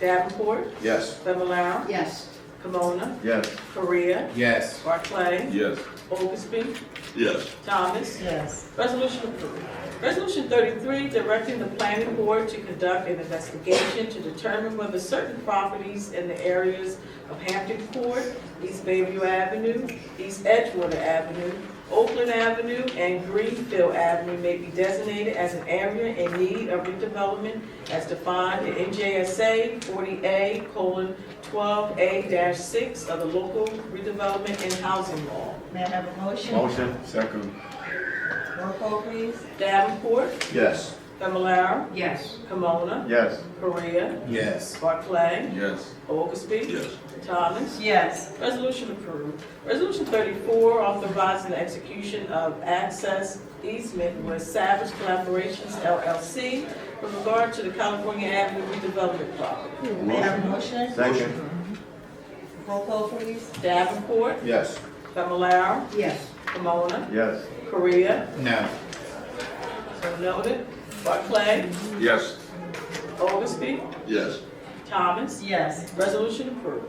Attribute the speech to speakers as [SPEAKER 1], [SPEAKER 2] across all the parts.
[SPEAKER 1] Davenport,
[SPEAKER 2] Yes.
[SPEAKER 1] Fablelaro,
[SPEAKER 3] Yes.
[SPEAKER 1] Camona,
[SPEAKER 2] Yes.
[SPEAKER 1] Korea,
[SPEAKER 4] Yes.
[SPEAKER 1] Barclay,
[SPEAKER 2] Yes.
[SPEAKER 1] Oglesby,
[SPEAKER 2] Yes.
[SPEAKER 1] Thomas.
[SPEAKER 3] Yes.
[SPEAKER 1] Resolution approved. Resolution thirty-three, directing the planning board to conduct an investigation to determine whether certain properties in the areas of Hampton Court, East Bayview Avenue, East Edgewater Avenue, Oakland Avenue, and Greenfield Avenue may be designated as an area in need of redevelopment as defined in NJSA forty A colon twelve A six of the local redevelopment and housing law.
[SPEAKER 3] May I have a motion?
[SPEAKER 2] Motion. Second.
[SPEAKER 3] Roll call, please.
[SPEAKER 1] Davenport,
[SPEAKER 2] Yes.
[SPEAKER 1] Fablelaro,
[SPEAKER 3] Yes.
[SPEAKER 1] Camona,
[SPEAKER 2] Yes.
[SPEAKER 1] Korea,
[SPEAKER 4] Yes.
[SPEAKER 1] Barclay,
[SPEAKER 2] Yes.
[SPEAKER 1] Oglesby. Thomas.
[SPEAKER 3] Yes.
[SPEAKER 1] Resolution approved. Resolution thirty-four, authorizing the execution of access easement with Savage Collaborations LLC with regard to the California Avenue redevelopment property.
[SPEAKER 3] May I have a motion?
[SPEAKER 2] Second.
[SPEAKER 3] Roll call, please.
[SPEAKER 1] Davenport,
[SPEAKER 2] Yes.
[SPEAKER 1] Fablelaro,
[SPEAKER 3] Yes.
[SPEAKER 1] Camona,
[SPEAKER 2] Yes.
[SPEAKER 1] Korea,
[SPEAKER 4] No.
[SPEAKER 1] so noted, Barclay,
[SPEAKER 2] Yes.
[SPEAKER 1] Oglesby,
[SPEAKER 2] Yes.
[SPEAKER 1] Thomas.
[SPEAKER 3] Yes.
[SPEAKER 1] Resolution approved.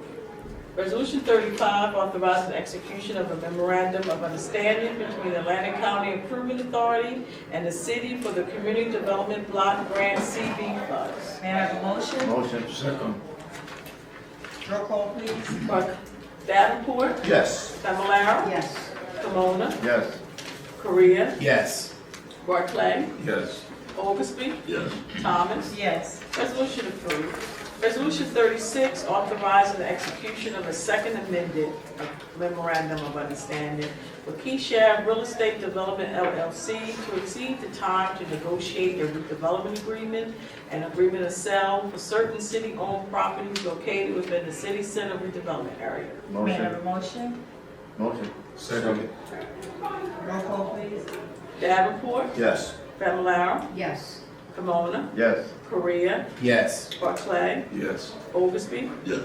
[SPEAKER 1] Resolution thirty-five, authorizing the execution of a memorandum of understanding between the Atlantic County Improvement Authority and the city for the Community Development Block Grant CB funds.
[SPEAKER 3] May I have a motion?
[SPEAKER 2] Motion. Second.
[SPEAKER 3] Roll call, please.
[SPEAKER 1] Bar- Davenport,
[SPEAKER 2] Yes.
[SPEAKER 1] Fablelaro,
[SPEAKER 3] Yes.
[SPEAKER 1] Camona,
[SPEAKER 2] Yes.
[SPEAKER 1] Korea,
[SPEAKER 4] Yes.
[SPEAKER 1] Barclay,
[SPEAKER 2] Yes.
[SPEAKER 1] Oglesby,
[SPEAKER 2] Yes.
[SPEAKER 1] Thomas.
[SPEAKER 3] Yes.
[SPEAKER 1] Resolution approved. Resolution thirty-six, authorizing the execution of a second amended memorandum of understanding with Keyshav Real Estate Development LLC to exceed the time to negotiate a redevelopment agreement and agreement of sale for certain city-owned properties located within the city center redevelopment area.
[SPEAKER 3] May I have
[SPEAKER 2] Motion.
[SPEAKER 3] a motion?
[SPEAKER 2] Motion. Second.
[SPEAKER 3] Roll call, please.
[SPEAKER 1] Davenport,
[SPEAKER 2] Yes.
[SPEAKER 1] Fablelaro,
[SPEAKER 3] Yes.
[SPEAKER 1] Camona,
[SPEAKER 2] Yes.
[SPEAKER 1] Korea,
[SPEAKER 4] Yes.
[SPEAKER 1] Barclay,
[SPEAKER 2] Yes.
[SPEAKER 1] Oglesby,
[SPEAKER 2] Yes.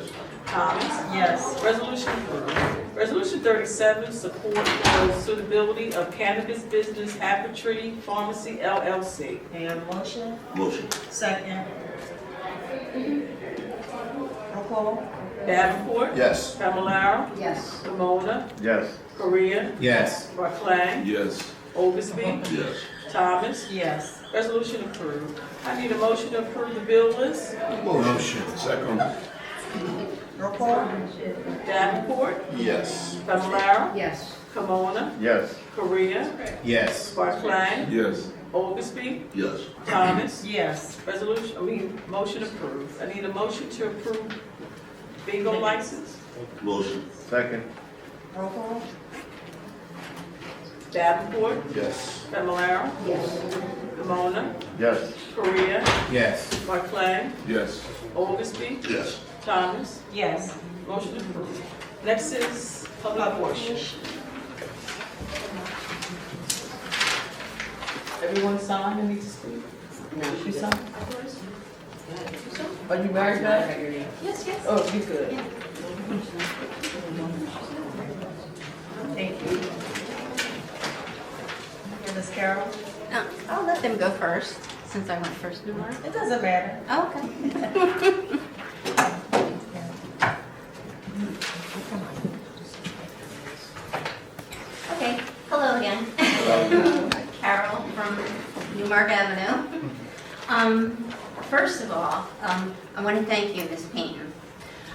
[SPEAKER 1] Thomas.
[SPEAKER 3] Yes.
[SPEAKER 1] Resolution approved. Resolution thirty-seven, support for suitability of cannabis business Tree Pharmacy LLC.
[SPEAKER 3] May I have a motion?
[SPEAKER 2] Motion.
[SPEAKER 3] Second. Roll call?
[SPEAKER 1] Davenport.
[SPEAKER 2] Yes.
[SPEAKER 1] Fablelaro.
[SPEAKER 3] Yes.
[SPEAKER 1] Camona.
[SPEAKER 2] Yes.
[SPEAKER 1] Korea.
[SPEAKER 4] Yes.
[SPEAKER 1] Barclay.
[SPEAKER 2] Yes.
[SPEAKER 1] Oglesby.
[SPEAKER 2] Yes.
[SPEAKER 1] Thomas.
[SPEAKER 3] Yes.
[SPEAKER 1] Resolution approved. I need a motion to approve the bill list.
[SPEAKER 2] Motion. Second.
[SPEAKER 3] Roll call?
[SPEAKER 1] Davenport.
[SPEAKER 2] Yes.
[SPEAKER 1] Fablelaro.
[SPEAKER 3] Yes.
[SPEAKER 1] Camona.
[SPEAKER 2] Yes.
[SPEAKER 1] Korea.
[SPEAKER 4] Yes.
[SPEAKER 1] Barclay.
[SPEAKER 2] Yes.
[SPEAKER 1] Oglesby.
[SPEAKER 2] Yes.
[SPEAKER 1] Thomas.
[SPEAKER 3] Yes.
[SPEAKER 1] Resolution, I mean, motion approved. I need a motion to approve bingo license.
[SPEAKER 2] Motion. Second.
[SPEAKER 3] Roll call?
[SPEAKER 1] Davenport,
[SPEAKER 2] Yes.
[SPEAKER 1] Fablelaro,
[SPEAKER 3] Yes.
[SPEAKER 1] Camona,
[SPEAKER 2] Yes.
[SPEAKER 1] Korea,
[SPEAKER 4] Yes.
[SPEAKER 1] Barclay,
[SPEAKER 2] Yes.
[SPEAKER 1] Oglesby,
[SPEAKER 2] Yes.
[SPEAKER 1] Thomas.
[SPEAKER 3] Yes.
[SPEAKER 1] Motion approved. Next is public portion. Everyone signed and need to speak?
[SPEAKER 3] She signed?
[SPEAKER 1] Are you married now?
[SPEAKER 5] Yes, yes.
[SPEAKER 1] Oh, you good.
[SPEAKER 3] Thank you. And Ms. Carroll?
[SPEAKER 5] No, I'll let them go first, since I went first in line.
[SPEAKER 3] It doesn't matter.
[SPEAKER 5] Oh, Okay. Okay, hello again. Carol from Newmark Avenue. Um, First of all, um, I want to thank you, Ms. Payton.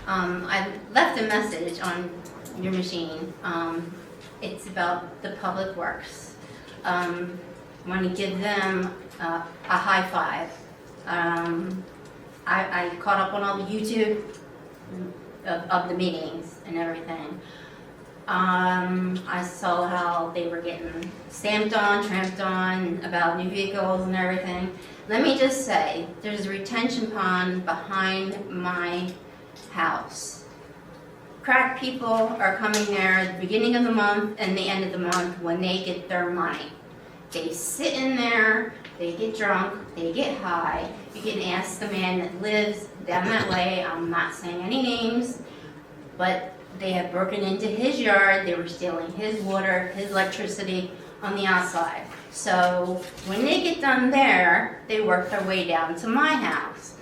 [SPEAKER 5] Um, I left a message on your machine. Um, It's about the public works. Um, I Want to give them uh, a high five. Um, I I caught up on all the YouTube of of the meetings and everything. Um, I saw how they were getting stamped on, tramped on about new vehicles and everything. Let me just say, there's a retention pond behind my house. Crack people are coming there at the beginning of the month and the end of the month when they get their money. They sit in there, they get drunk, they get high. You can ask the man that lives down that way, I'm not saying any names, but they had broken into his yard, they were stealing his water, his electricity on the outside. So when they get done there, they work their way down to my house.